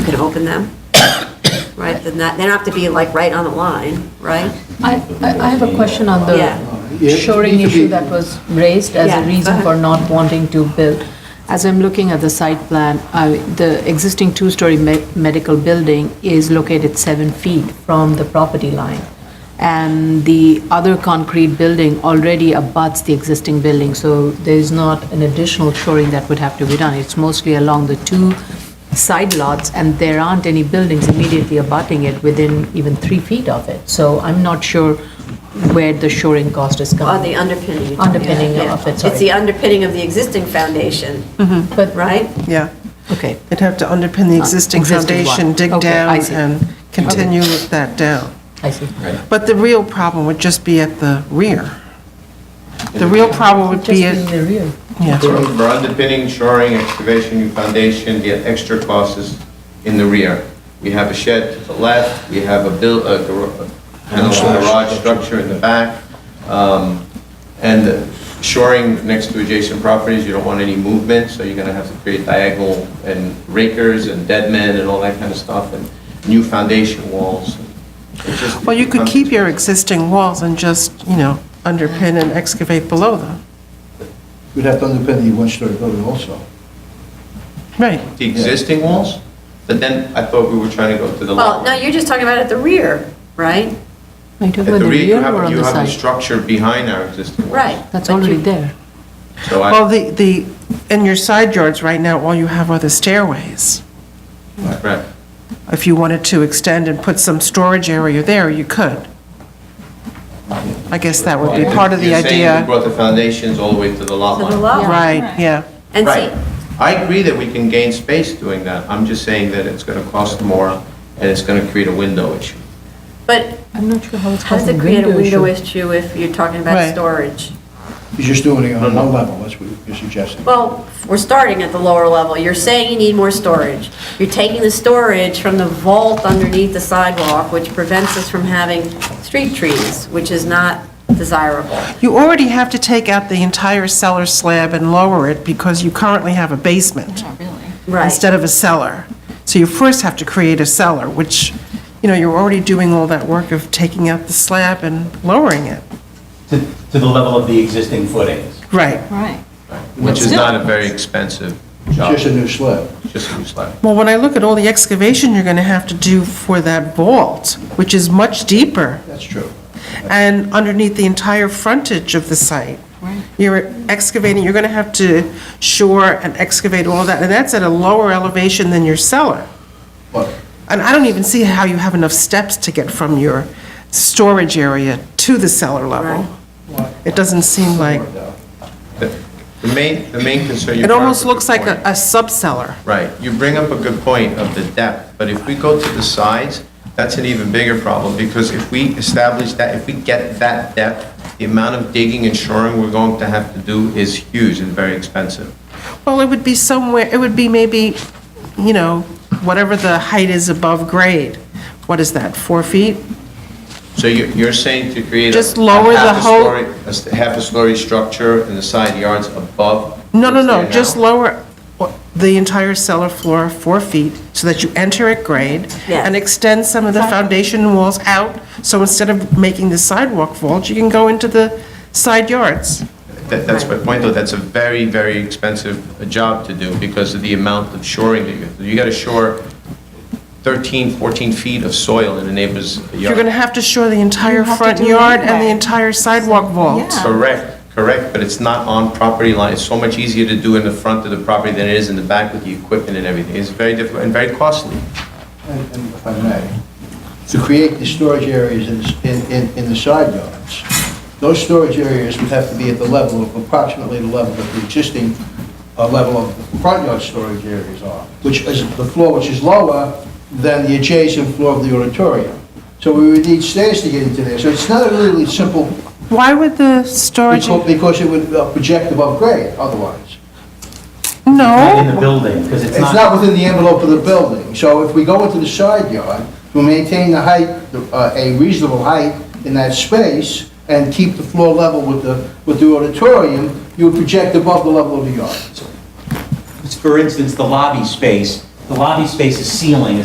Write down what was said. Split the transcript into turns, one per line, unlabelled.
open them, right? Then that, they don't have to be like right on the line, right?
I, I I have a question on
Yeah.
the shoring issue that was raised as
Yeah, go
a reason
ahead.
for not wanting to build. As I'm looking at the site plan, I- the existing two-story me- medical building is located seven feet from the property line. And the other concrete building already abuts the existing building, so there is not an additional shoring that would have to be done. It's mostly along the two side lots, and there aren't any buildings immediately abutting it within even three feet of it. So I'm not sure where the shoring cost is
Or
coming.
the underpinning.
Underpinning
Yeah.
of it, sorry.
It's the underpinning of the existing foundation,
But,
right?
Yeah,
okay,
they'd have to underpin the existing
Ah, Existing one.
foundation, dig
Okay, I
down,
see.
and continue with that down.
I see.
But the real problem would just be at the rear. The real problem would
Just
be
in
at,
the rear.
yeah,
For underpinning, shoring, excavation, new foundation, the extra costs is in the rear. We have a shed to the left, we have a build, a gar- a kind of garage structure in the back. um, And shoring next to adjacent properties, you don't want any movement, so you're gonna have to create diagonal and rakers and dead men and all that kind of stuff, and new foundation walls. It just-
well, you could keep your existing walls and just, you know, underpin and excavate below them.
We'd have to underpin the one-story building also.
Right,
The existing walls, but then I thought we were trying to go to the left.
Well, no, you're just talking about at the rear, right?
Are you talking
At
about
the
the
rear, you
rear or
have,
on
you
the
have the
side?
structure behind our existing walls.
Right.
That's
But you-
already there.
So
well,
I,
the, the, in your side yards right now, all you have are the stairways.
right,
If you wanted to extend and put some storage area there, you could. I guess that would be part of the
You're saying we
idea.
brought the foundations all the way to the lot
To
line.
the lot.
Right, yeah.
And see,
Right. I agree that we can gain space doing that. I'm just saying that it's going to cost more and it's going to create a window issue.
but
I'm not sure how it's
how does
causing
it create a window
issue.
issue if you're talking about
Right.
storage?
You're just doing it on one level, that's what you're suggesting.
Well, we're starting at the lower level. You're saying you need more storage. You're taking the storage from the vault underneath the sidewalk, which prevents us from having street trees, which is not desirable.
You already have to take out the entire cellar slab and lower it because you currently have a basement
Right.
instead of a cellar. So you first have to create a cellar, which, you know, you're already doing all that work of taking out the slab and lowering it.
to, to the level of the existing footings.
Right.
Right.
Which is not a very expensive job,
It's just a new slab.
just a new slab.
Well, when I look at all the excavation you're going to have to do for that vault, which is much deeper,
That's true.
and underneath the entire frontage of the site. You're excavating, you're going to have to shore and excavate all that, and that's at a lower elevation than your cellar.
But
And I don't even see how you have enough steps to get from your storage area to the cellar level. It doesn't seem like,
The the main, the main concern you
it
brought up
almost
is a good
looks like
point.
a, a sub-cellar.
Right, you bring up a good point of the depth, but if we go to the sides, that's an even bigger problem, because if we establish that, if we get that depth, the amount of digging and shoring we're going to have to do is huge and very expensive.
Well, it would be somewhere, it would be maybe, you know, whatever the height is above grade. What is that, four feet?
So you- you're saying to create a...
Just lower
a
the
half a
whole-
story- a s- Half a story structure in the side yards above?
No, no,
what's
no,
there
just
now?
lower the entire cellar floor four feet so that you enter at grade
Yes.
and extend some of the foundation walls out. So instead of making the sidewalk vault, you can go into the side yards.
That- That's my point, though, that's a very, very expensive uh, job to do because of the amount of shoring that you, you got to shore 13, 14 feet of soil in a neighbor's yard.
You're going to have to shore the entire
have to
front
do it
yard and the
anyway.
entire sidewalk vault.
Yeah.
Correct, correct, but it's not on property line. It's so much easier to do in the front of the property than it is in the back with the equipment and everything. It's very difficult and very costly.
And and if I may, to create the storage areas in, in, in- in the side yards, those storage areas would have to be at the level of approximately the level of the existing uh, level of the front yard storage areas are, which is the floor which is lower than the adjacent floor of the auditorium. So we would need stairs to get into there. So it's not a really simple,
Why would the storage,
becau- because it would uh, project above grade otherwise.
Not in the
no,
building, because it's
It's
not,
not within the envelope of the building, so if we go into the side yard, we maintain the height, uh, a reasonable height in that space, and keep the floor level with the, with the auditorium, you would project above the level of the yard.
for instance, the lobby space, the lobby space is ceiling,